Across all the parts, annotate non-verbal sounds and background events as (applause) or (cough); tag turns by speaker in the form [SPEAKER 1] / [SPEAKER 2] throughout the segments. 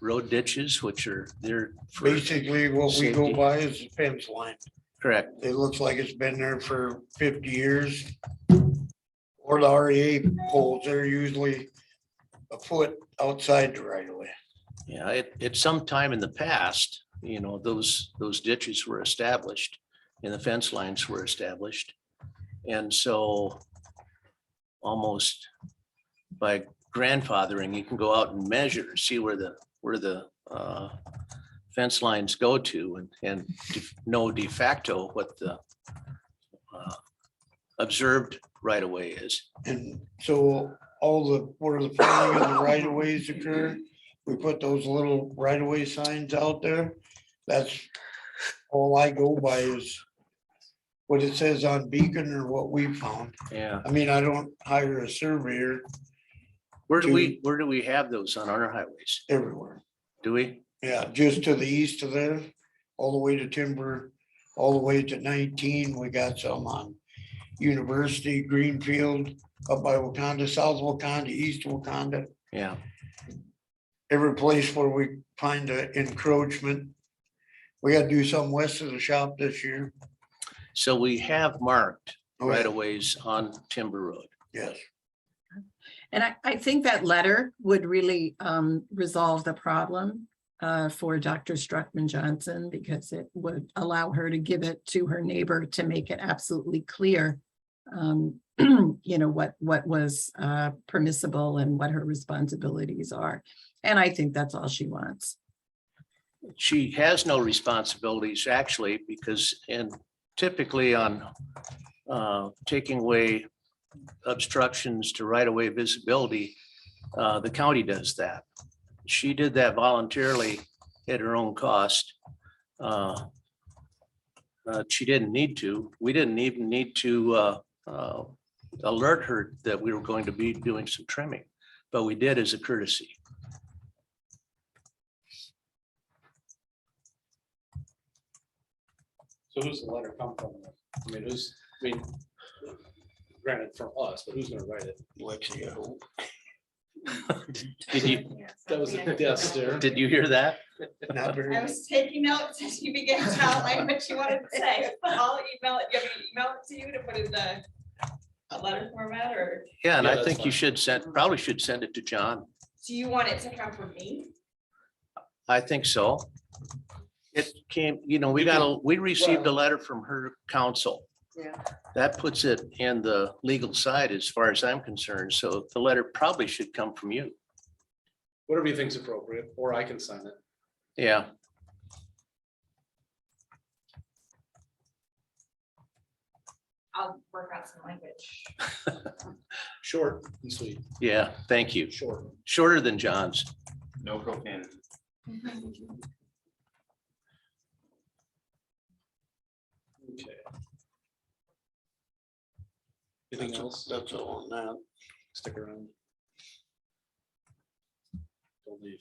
[SPEAKER 1] road ditches, which are, they're for-
[SPEAKER 2] Basically, what we go
[SPEAKER 1] Safety.
[SPEAKER 2] by is the fence line.
[SPEAKER 1] correct,
[SPEAKER 2] It looks like it's been there for fifty years. Or the REA poles, they're usually a foot outside the right of way.
[SPEAKER 1] yeah, it, at some time in the past, you know, those, those ditches were established and the fence lines were established. And so almost by grandfathering, you can go out and measure, see where the, where the uh, fence lines go to and, and de- know de facto what the uh, observed right of way is.
[SPEAKER 2] And so all the, where the planning and the right of ways occur, we put those little right of way signs out there. That's all I go by is what it says on Beacon or what we found.
[SPEAKER 1] Yeah.
[SPEAKER 2] I mean, I don't hire a surveyor
[SPEAKER 1] Where do
[SPEAKER 2] To-
[SPEAKER 1] we, where do we have those on our highways?
[SPEAKER 2] everywhere.
[SPEAKER 1] Do we?
[SPEAKER 2] Yeah, just to the east of there, all the way to Timber, all the way to nineteen, we got some on University, Greenfield, up by Wakanda, South Wakanda, East Wakanda.
[SPEAKER 1] Yeah,
[SPEAKER 2] every place where we find an encroachment. We gotta do something west of the shop this year.
[SPEAKER 1] so we have marked
[SPEAKER 2] Oh,
[SPEAKER 1] right of ways on Timber Road.
[SPEAKER 2] Yes,
[SPEAKER 3] And I, I think that letter would really um, resolve the problem uh, for Dr. Struckman Johnson because it would allow her to give it to her neighbor to make it absolutely clear, um, (clears throat) you know, what, what was uh, permissible and what her responsibilities are. And I think that's all she wants.
[SPEAKER 1] She has no responsibilities actually because and typically on uh, taking away obstructions to right of way visibility, uh, the county does that. She did that voluntarily at her own cost. Uh, uh, She didn't need to. We didn't even need to uh, uh, alert her that we were going to be doing some trimming, but we did as a courtesy.
[SPEAKER 4] So who's the letter come from? I mean, who's, I mean, granted from us, but who's gonna write it?
[SPEAKER 2] Lexi, I hope.
[SPEAKER 1] Did you,
[SPEAKER 4] That was a death stare.
[SPEAKER 1] did you hear that?
[SPEAKER 2] Not very,
[SPEAKER 5] I was taking notes as you began to outline what you wanted to say. I'll email it, give me email it to you to put in the a letter format or
[SPEAKER 1] Yeah, and
[SPEAKER 4] Yeah,
[SPEAKER 1] I
[SPEAKER 4] that's
[SPEAKER 1] think you
[SPEAKER 4] fine.
[SPEAKER 1] should send, probably should send it to John.
[SPEAKER 5] do you want it to come from me?
[SPEAKER 1] I think so. It came, you know, we got, a we received a letter from her counsel.
[SPEAKER 5] Yeah.
[SPEAKER 1] That puts it in the legal side as far as I'm concerned, so the letter probably should come from you.
[SPEAKER 4] Whatever you think's appropriate, or I can sign it.
[SPEAKER 1] Yeah,
[SPEAKER 5] I'll work out some language.
[SPEAKER 4] Short and sweet,
[SPEAKER 1] yeah, thank you.
[SPEAKER 4] short.
[SPEAKER 1] Shorter than John's.
[SPEAKER 6] No propane.
[SPEAKER 4] Okay. Anything else?
[SPEAKER 2] that's all on that.
[SPEAKER 4] Stick around. Don't leave.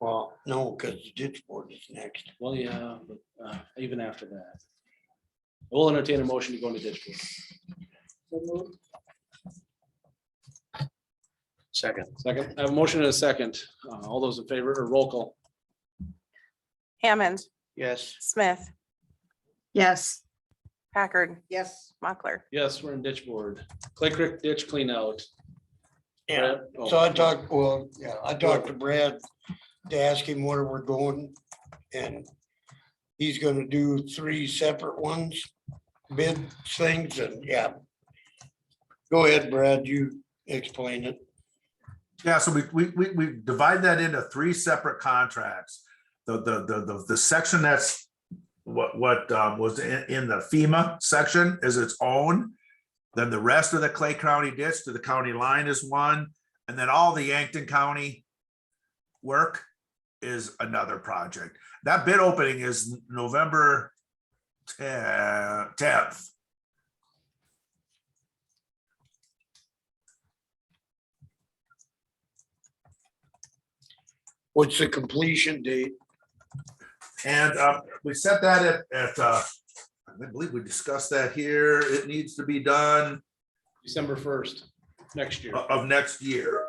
[SPEAKER 4] Well.
[SPEAKER 2] No, cause the ditch board is next.
[SPEAKER 4] Well, yeah, but uh, even after that. We'll entertain a motion to go into ditch. board.
[SPEAKER 1] Second,
[SPEAKER 4] Second, I have a motion and a second. Uh, All those in favor or roll call?
[SPEAKER 7] Hammond,
[SPEAKER 1] yes.
[SPEAKER 7] Smith,
[SPEAKER 3] Yes,
[SPEAKER 7] Packard,
[SPEAKER 2] Yes.
[SPEAKER 7] Mochler.
[SPEAKER 4] Yes, we're in ditch board. Clay Creek ditch clean out.
[SPEAKER 2] Yeah,
[SPEAKER 4] Brad? Oh,
[SPEAKER 2] so I talked, well, yeah, I talked to Brad to ask him where we're going and he's gonna do three separate ones, bid things and yeah. Go ahead, Brad, you explain it.
[SPEAKER 8] Yeah, so we, we, we, we divide that into three separate contracts. The, the, the, the, the section that's what, what, um, was in, in the FEMA section is its own. Then the rest of the Clay County ditch to the county line is one, and then all the Yankton County work is another project. That bid opening is November tenth.
[SPEAKER 2] What's the completion date?
[SPEAKER 8] And uh, we set that at, at, uh, I believe we discussed that here. It needs to be done
[SPEAKER 4] December first, next year.
[SPEAKER 8] o- of next year.